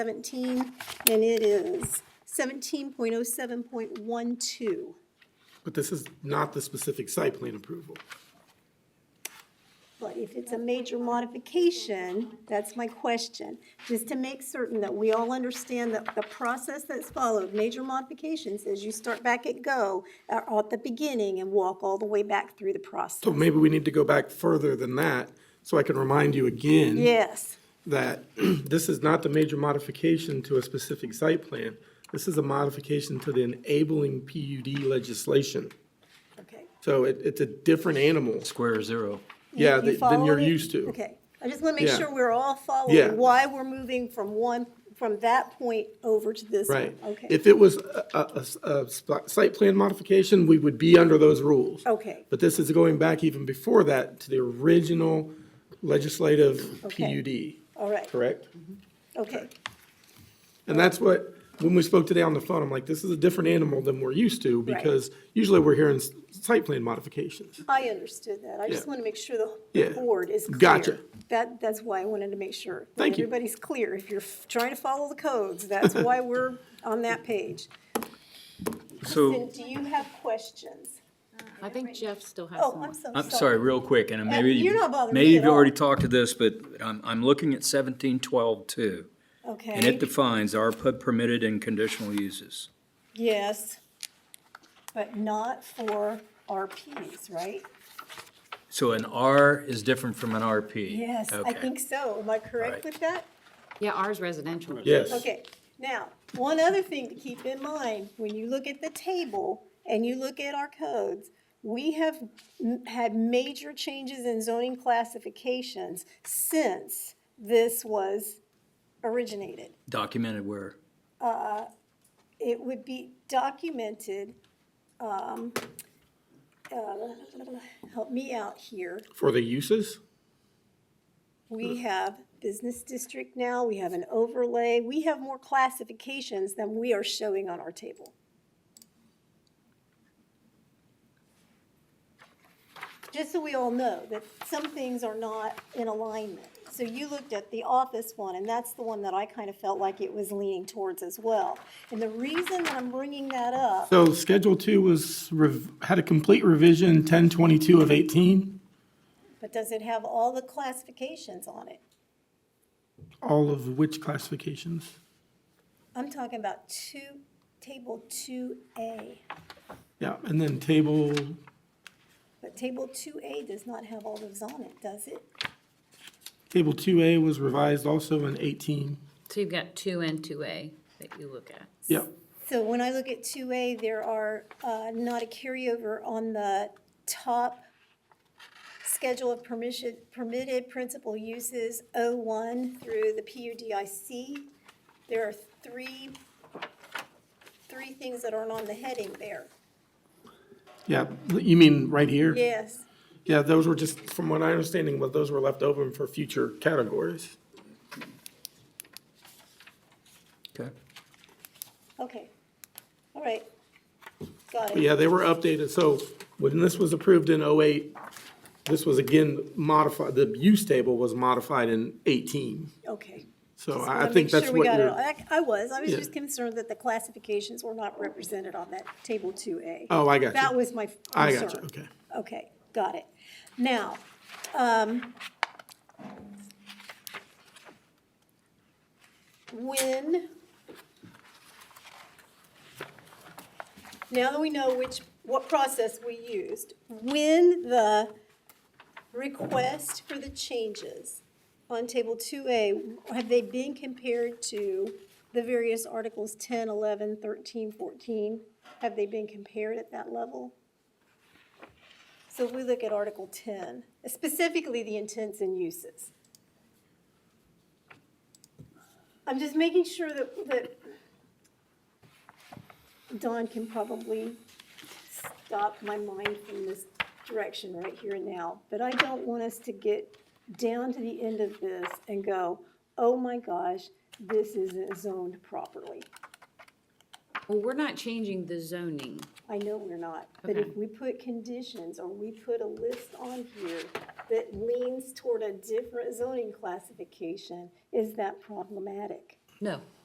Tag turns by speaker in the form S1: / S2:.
S1: 17, and it is 17.07.12.
S2: But this is not the specific site plan approval.
S1: But if it's a major modification, that's my question, just to make certain that we all understand that the process that's followed, major modifications, is you start back at go, are at the beginning and walk all the way back through the process.
S2: So maybe we need to go back further than that, so I can remind you again
S1: Yes,
S2: that this is not the major modification to a specific site plan. This is a modification to the enabling PUD legislation.
S1: okay.
S2: So it, it's a different animal,
S3: Square zero.
S1: You- you
S2: yeah, than than you're
S1: following it?
S2: used to.
S1: Okay, I just want to make
S2: Yeah.
S1: sure we're all
S2: Yeah.
S1: following why we're moving from one, from that point over to this one.
S2: Right.
S1: Okay,
S2: If it was a, a- a- a sp- site plan modification, we would be under those rules.
S1: okay,
S2: But this is going back even before that to the original legislative
S1: Okay.
S2: PUD,
S1: all right,
S2: correct?
S1: okay,
S2: And that's what, when we spoke today on the phone, I'm like, this is a different animal than we're used to
S1: Right.
S2: because usually we're hearing s- site plan modifications.
S1: I understood that, I just
S2: Yeah.
S1: want to make sure the-
S2: Yeah.
S1: the board is clear.
S2: Gotcha.
S1: That, that's why I wanted to make sure. that
S2: Thank you.
S1: Everybody's clear, if you're f- trying to follow the codes, that's why we're on that page.
S3: So,
S1: Then do you have questions?
S4: I think Jeff still has
S1: Oh,
S4: some.
S1: I'm so sorry.
S3: I'm sorry, real quick, and maybe,
S1: you're not
S3: you-
S1: bothering
S3: maybe
S1: me
S3: you've
S1: at all.
S3: already talked to this, but I'm, I'm looking at seventeen twelve two. And it
S1: Okay,
S3: defines our pub permitted and conditional uses.
S1: yes, but not for RPs, right?
S3: So an R is different from an RP.
S1: Yes, I
S3: Okay.
S1: think so. Am I correct
S3: Right.
S1: with that?
S4: Yeah, ours residential.
S2: Yes.
S1: Okay, now, one other thing to keep in mind, when you look at the table and you look at our codes, we have m- had major changes in zoning classifications since this was originated.
S3: Documented where?
S1: It would be documented, um, uh, help me out here.
S2: For the uses?
S1: We have business district now, we have an overlay, we have more classifications than we are showing on our table. Just so we all know that some things are not in alignment. So you looked at the office one, and that's the one that I kind of felt like it was leaning towards as well. And the reason that I'm bringing that up,
S2: So Schedule Two was, rev- had a complete revision ten twenty-two of eighteen.
S1: but does it have all the classifications on it?
S2: All of which classifications?
S1: I'm talking about two, table two A.
S2: Yeah, and then table,
S1: But table two A does not have all those on it, does it?
S2: table two A was revised also in eighteen.
S4: So you've got two and two A that you look at.
S2: Yep,
S1: So when I look at two A, there are, uh, not a carryover on the top schedule of permission, permitted principal uses O one through the PUDIC. There are three, three things that aren't on the heading there.
S2: yeah, you mean right here?
S1: Yes,
S2: Yeah, those were just, from what I understanding, what those were left over for future categories.
S3: Okay.
S1: okay, all right, got
S2: But
S1: it,
S2: Yeah, they were updated, so when this was approved in '08, this was again modified, the use table was modified in eighteen.
S1: okay.
S2: So
S1: Just
S2: I I
S1: wanna
S2: think
S1: make
S2: that's
S1: sure we
S2: what
S1: got it all.
S2: you're,
S1: I I was, I was
S2: Yeah.
S1: just concerned that the classifications were not represented on that table two A.
S2: oh, I got
S1: That
S2: you.
S1: was my f-
S2: I
S1: concern.
S2: got you, okay.
S1: Okay, got it. Now, um, when, now that we know which, what process we used, when the request for the changes on table two A, have they been compared to the various articles 10, 11, 13, 14? Have they been compared at that level? So if we look at Article 10, specifically the intents and uses. I'm just making sure that, that Don can probably stop my mind from this direction right here and now, but I don't want us to get down to the end of this and go, oh my gosh, this isn't zoned properly.
S4: Well, we're not changing the zoning.
S1: I know we're not, but if
S4: Okay.
S1: we put conditions or we put a list on here that leans toward a different zoning classification, is that problematic?
S4: No.